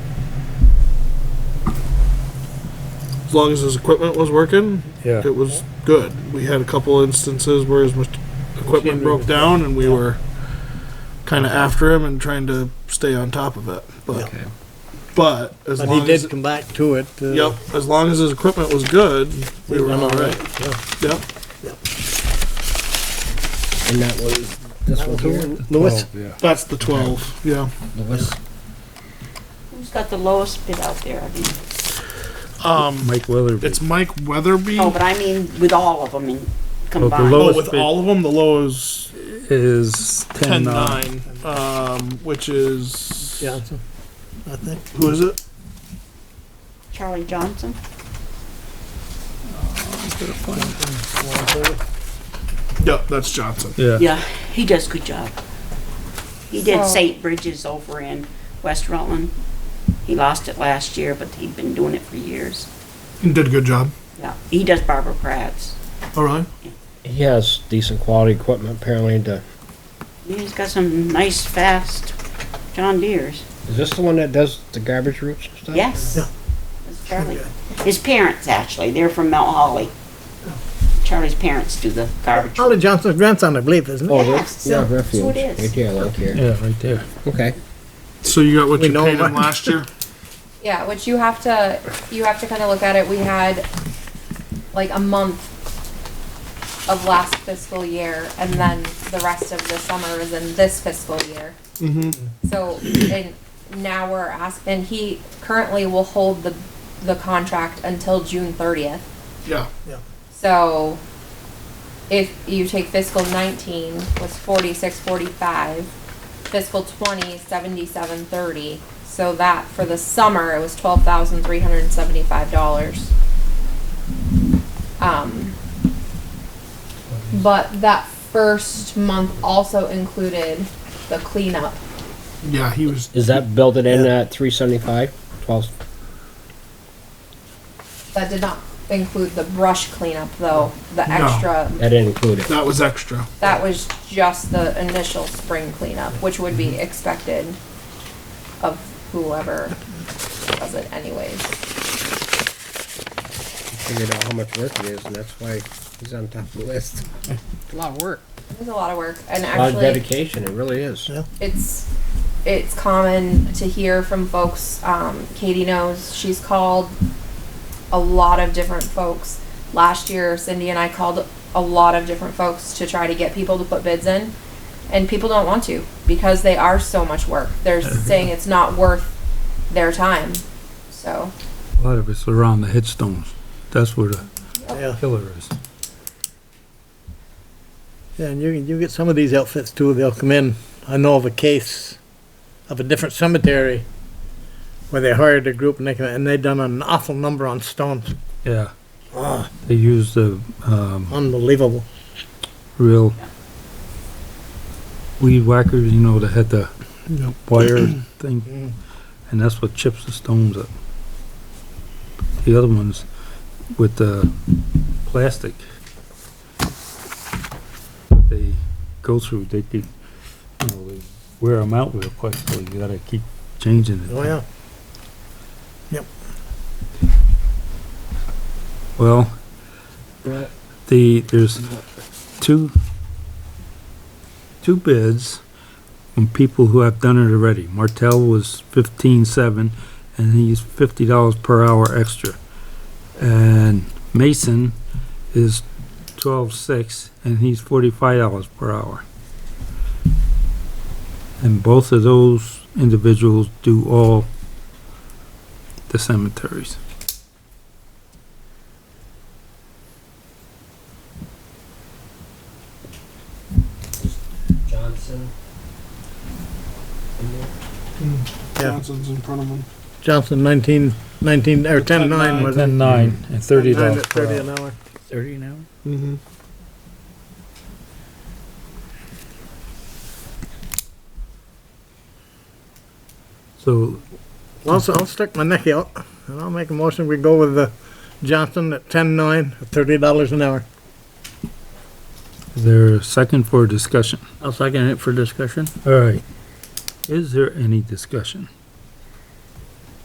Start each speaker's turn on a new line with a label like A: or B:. A: as long as his equipment was working,
B: Yeah.
A: it was good. We had a couple instances where his mach- equipment broke down and we were kind of after him and trying to stay on top of it. But,
C: Okay.
A: but as
B: But he
A: long as,
B: did come back to it. uh,
A: yep, as long as his equipment was good, we were all right. Yep.
D: And that was this one here,
B: Lewis,
E: Oh.
A: That's the 12. Yeah.
D: Lewis,
F: Who's got the lowest bid out there? I mean,
A: Um,
B: Mike Weatherby.
A: it's Mike Weatherby.
F: no, oh, but I mean with all of them in
A: Oh,
B: Oh, lowest-
F: combined.
A: with all of them, the low is
B: is
A: 10
B: ten nine.
A: 9, um, which is.
B: Johnson, I think.
A: Who is it?
F: Charlie Johnson?
A: Yep, that's Johnson.
B: Yeah.
F: Yeah, he does good job. He did St. Bridges over in West Rutland. He lost it last year, but he'd been doing it for years.
A: Did a good job.
F: Yeah, he does Barbara Pratt's.
A: All right.
D: he has decent quality equipment apparently to,
F: He's got some nice, fast John Deere's.
D: is this the one that does the garbage routes and stuff?
F: Yes. That's Charlie. His parents, actually, they're from Mount Holly.
D: Oh.
F: Charlie's parents do the garbage.
B: Charlie Johnson's grandson, I believe, isn't it?
D: Oh,
F: Yes,
D: that's, Oh, yeah,
F: so- so
D: refuge,
F: it is.
D: right there, like here,
B: Yeah, right there.
D: okay.
A: So you got what
B: We
A: you
B: know
A: paid him
B: what-
A: last year?
G: Yeah, which you have to, you have to kind of look at it, we had like a month of last fiscal year, and then the rest of the summer is in this fiscal year. So, and now we're asking, and he currently will hold the, the contract until June thirtieth.
A: Yeah.
G: So, if you take fiscal nineteen was forty-six, forty-five, fiscal twenty, seventy-seven, thirty. So that for the summer, it was twelve thousand three hundred and seventy-five dollars. Um, but that first month also included the cleanup.
A: Yeah, he was.
D: Is that built it in at three seventy-five, twelve?
G: That did not include the brush cleanup though, the
A: No.
G: extra
D: That didn't include it.
A: That was extra.
G: That was just the initial spring cleanup, which would be expected of whoever does it anyways.
D: Figured out how much work it is, and that's why he's on top of the list. A lot of work.
G: It's a lot of work and
D: A lot of
G: actually
D: dedication, it really is.
B: Yeah.
G: it's, it's common to hear from folks, um, Katie knows, she's called a lot of different folks. Last year Cindy and I called a lot of different folks to try to get people to put bids in. And people don't want to because they are so much work. They're saying it's not worth their time, so.
E: A lot of it's around the headstones. That's where the
B: Yeah,
E: killer is.
B: Yeah, and you, you get some of these outfits too, they'll come in, I know of a case of a different cemetery where they hired a group and they, come in, and they done an awful number on stones,
E: Yeah. They use the, um,
B: unbelievable.
E: real weed whackers, you know, that had the
A: Yep.
E: wire
B: Mm-hmm.
E: thing. And that's what chips the stones up. The other ones with the plastic. They go through, they could, you know, they wear them out real quick, so you gotta keep changing it.
B: Oh, yeah.
E: Well, the, there's two, two bids from people who have done it already. Martell was fifteen-seven, and he's fifty dollars per hour extra. And Mason is twelve-six, and he's forty-five dollars per hour. And both of those individuals do all the cemeteries.
D: Johnson.
A: Johnson's in front of him.
B: Johnson nineteen, nineteen, or ten nine was it?
E: Ten nine and thirty
B: Nine
E: dollars
B: at
E: per
B: Thirty
E: hour.
B: an hour.
D: Thirty an hour?
A: Mm-hmm.
E: So
B: Well, so I'll stick my neck out, and I'll make a motion, we go with the Johnson at ten nine, thirty dollars an hour.
E: is there a second for discussion?
H: I'll second it for discussion.
E: All right. Is there any discussion?